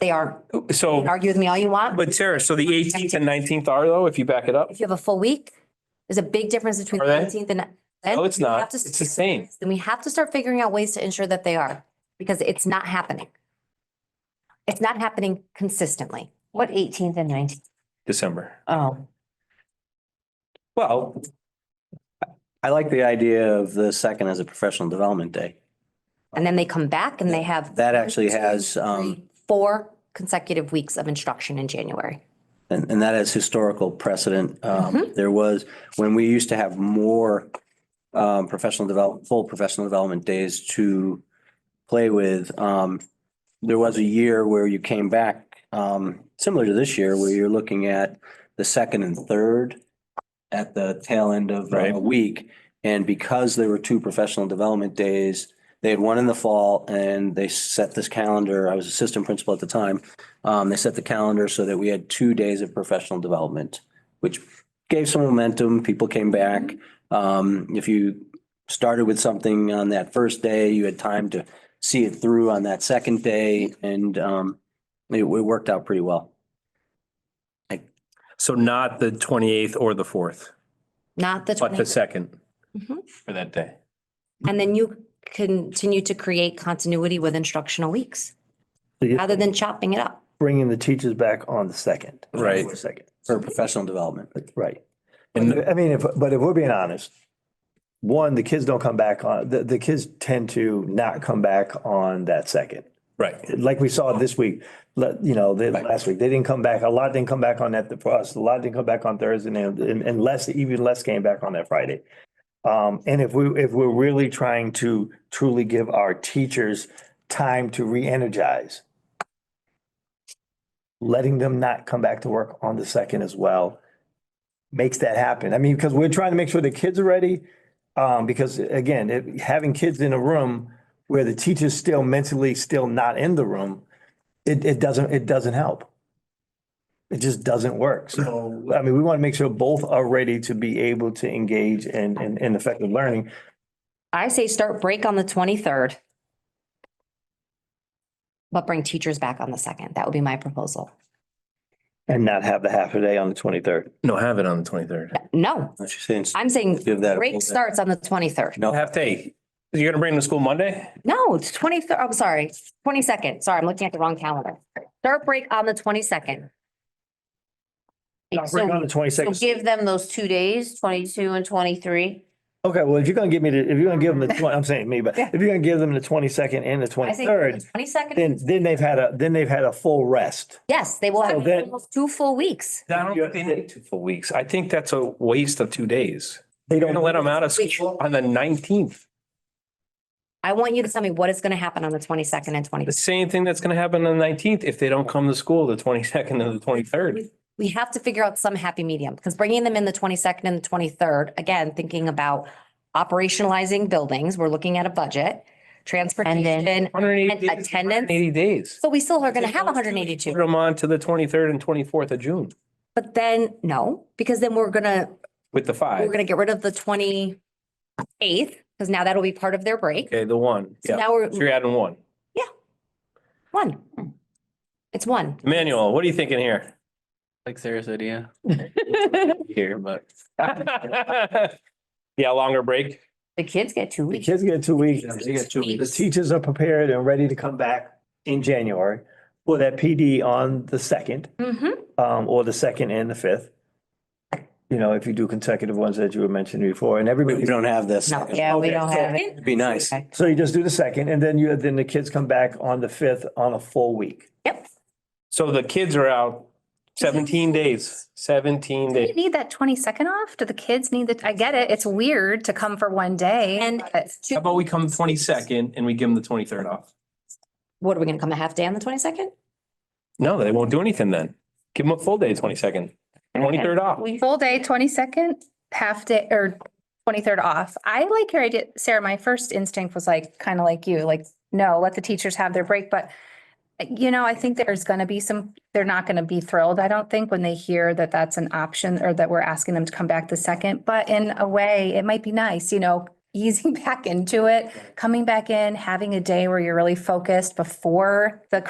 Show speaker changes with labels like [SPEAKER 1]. [SPEAKER 1] They are,
[SPEAKER 2] So,
[SPEAKER 1] argue with me all you want.
[SPEAKER 2] Oh. but Sarah, so the eighteenth and nineteenth are though, if you back it up?
[SPEAKER 1] If you have a full week, there's a big difference between
[SPEAKER 2] Are they?
[SPEAKER 1] nineteenth and.
[SPEAKER 2] No, it's
[SPEAKER 1] we have
[SPEAKER 2] not.
[SPEAKER 1] to-
[SPEAKER 2] It's the same.
[SPEAKER 1] Then we have to start figuring out ways to ensure that they are, because it's not happening. It's not happening consistently.
[SPEAKER 3] What eighteenth and nineteenth?
[SPEAKER 2] December.
[SPEAKER 3] Oh,
[SPEAKER 4] Well, I like the idea of the second as a professional development day.
[SPEAKER 1] And then they come back and they have
[SPEAKER 4] That actually has, um,
[SPEAKER 1] four consecutive weeks of instruction in January.
[SPEAKER 4] and, and that has historical precedent. Um, there was, when we used to have more, um, professional develop, full professional development days to play with, um, there was a year where you came back, um, similar to this year, where you're looking at the second and third at the tail end of uh, a
[SPEAKER 2] Right.
[SPEAKER 4] week. And because there were two professional development days, they had one in the fall and they set this calendar. I was assistant principal at the time. Um, they set the calendar so that we had two days of professional development, which gave some momentum. People came back. Um, if you started with something on that first day, you had time to see it through on that second day and, um, it, it worked out pretty well.
[SPEAKER 2] So not the twenty-eighth or the fourth,
[SPEAKER 1] Not the
[SPEAKER 2] but the
[SPEAKER 1] 20th.
[SPEAKER 2] second
[SPEAKER 1] Mhm.
[SPEAKER 2] for that day.
[SPEAKER 1] And then you continue to create continuity with instructional weeks
[SPEAKER 5] So you're
[SPEAKER 1] rather than chopping it up.
[SPEAKER 5] bringing the teachers back on the second.
[SPEAKER 2] Right.
[SPEAKER 5] for a Second,
[SPEAKER 4] for professional development.
[SPEAKER 5] right.
[SPEAKER 2] And
[SPEAKER 5] I mean, if, but if we're being honest, one, the kids don't come back on, the, the kids tend to not come back on that second.
[SPEAKER 2] right,
[SPEAKER 5] Like we saw this week, let, you know, the, last week, they didn't come back. A lot didn't come back on that for us. A lot didn't come back on Thursday and, and and less, even less came back on that Friday. Um, and if we, if we're really trying to truly give our teachers time to re-energize, letting them not come back to work on the second as well makes that happen. I mean, because we're trying to make sure the kids are ready. Um, because again, it- having kids in a room where the teacher's still mentally still not in the room, it, it doesn't, it doesn't help. It just doesn't work. So, I mean, we want to make sure both are ready to be able to engage in, in, in effective learning.
[SPEAKER 1] I say start break on the twenty-third. But bring teachers back on the second. That would be my proposal.
[SPEAKER 5] And not have the half a day on the twenty-third.
[SPEAKER 2] no, have it on the twenty-third.
[SPEAKER 1] No,
[SPEAKER 4] That's just saying,
[SPEAKER 1] I'm saying
[SPEAKER 4] Give that a full
[SPEAKER 1] break
[SPEAKER 4] day.
[SPEAKER 1] starts on the twenty-third.
[SPEAKER 4] No,
[SPEAKER 2] Half day. You're gonna bring them to school Monday?
[SPEAKER 1] No, it's twenty-third, I'm sorry, twenty-second. Sorry, I'm looking at the wrong calendar. Start break on the twenty-second.
[SPEAKER 5] Not
[SPEAKER 3] so-
[SPEAKER 5] break on the
[SPEAKER 3] so
[SPEAKER 5] twenty-sixth.
[SPEAKER 3] give them those two days, twenty-two and twenty-three.
[SPEAKER 5] Okay, well, if you're gonna give me the, if you're gonna give them the, 20 I'm saying me, but if you're gonna give them the twenty-second and the
[SPEAKER 1] I think
[SPEAKER 5] twenty-third,
[SPEAKER 1] twenty-second,
[SPEAKER 5] then, then they've had a, then they've had a full rest.
[SPEAKER 1] yes, they will
[SPEAKER 5] So
[SPEAKER 1] have
[SPEAKER 5] then-
[SPEAKER 1] almost two full weeks.
[SPEAKER 2] I don't think they need two full weeks. I think that's a waste of two days.
[SPEAKER 5] They
[SPEAKER 2] You're
[SPEAKER 5] don't.
[SPEAKER 2] gonna let them out of school on the nineteenth.
[SPEAKER 1] I want you to tell me what is going to happen on the twenty-second and twenty.
[SPEAKER 2] The same thing that's gonna happen on the nineteenth if they don't come to school the twenty-second and the twenty-third.
[SPEAKER 1] we have to figure out some happy medium because bringing them in the twenty-second and the twenty-third, again, thinking about operationalizing buildings, we're looking at a budget, transportation.
[SPEAKER 2] Hundred and
[SPEAKER 1] And
[SPEAKER 2] eighty days.
[SPEAKER 1] attendance?
[SPEAKER 2] Eighty days.
[SPEAKER 1] So we still are going to have
[SPEAKER 2] Those two,
[SPEAKER 1] hundred and
[SPEAKER 2] Put
[SPEAKER 1] eighty-two,
[SPEAKER 2] them on to the twenty-third and twenty-fourth of June
[SPEAKER 1] but then, no, because then we're gonna,
[SPEAKER 2] with the
[SPEAKER 1] we're
[SPEAKER 2] five.
[SPEAKER 1] gonna get rid of the twenty-eighth because now that'll be part of their break.
[SPEAKER 2] Okay, the one.
[SPEAKER 1] So
[SPEAKER 2] Yeah.
[SPEAKER 1] now
[SPEAKER 2] So
[SPEAKER 1] we're
[SPEAKER 2] you're adding one.
[SPEAKER 1] one. It's one.
[SPEAKER 2] Emmanuel, what are you thinking here?
[SPEAKER 6] Like Sarah said, yeah. Here, but
[SPEAKER 2] Yeah, longer break.
[SPEAKER 3] The kids get two
[SPEAKER 5] The
[SPEAKER 3] weeks.
[SPEAKER 5] kids get two weeks.
[SPEAKER 4] they get two
[SPEAKER 5] The teachers are prepared and ready to come back in January for that PD on the second,
[SPEAKER 1] Mhm.
[SPEAKER 5] um, or the second and the fifth. You know, if you do consecutive ones that you were mentioning before and
[SPEAKER 4] we
[SPEAKER 5] everybody,
[SPEAKER 4] don't have this.
[SPEAKER 1] No.
[SPEAKER 4] It'd
[SPEAKER 3] Yeah, we don't have it.
[SPEAKER 4] be nice.
[SPEAKER 3] Okay.
[SPEAKER 5] so you just do the second and then you, then the kids come back on the fifth on a full week.
[SPEAKER 1] Yep.
[SPEAKER 2] So the kids are out seventeen days, seventeen
[SPEAKER 7] Do you
[SPEAKER 2] days.
[SPEAKER 7] need that twenty second off? Do the kids need that? I get it. It's weird to come for one day.
[SPEAKER 1] And uh,
[SPEAKER 7] but-
[SPEAKER 2] How about we come twenty-second and we give them the twenty-third off?
[SPEAKER 1] What, are we gonna come a half day on the twenty-second?
[SPEAKER 2] No, they won't do anything then. Give them a full day, twenty-second, twenty-third off.
[SPEAKER 3] We-
[SPEAKER 7] Full day, twenty second, half day or twenty third off. I like your idea, Sarah. My first instinct was like, kind of like you, like, no, let the teachers have their break, but. uh, You know, I think there's gonna be some, they're not gonna be thrilled, I don't think, when they hear that that's an option or that we're asking them to come back the second, but in a way, it might be nice, you know. Easing back into it, coming back in, having a day where you're really focused before the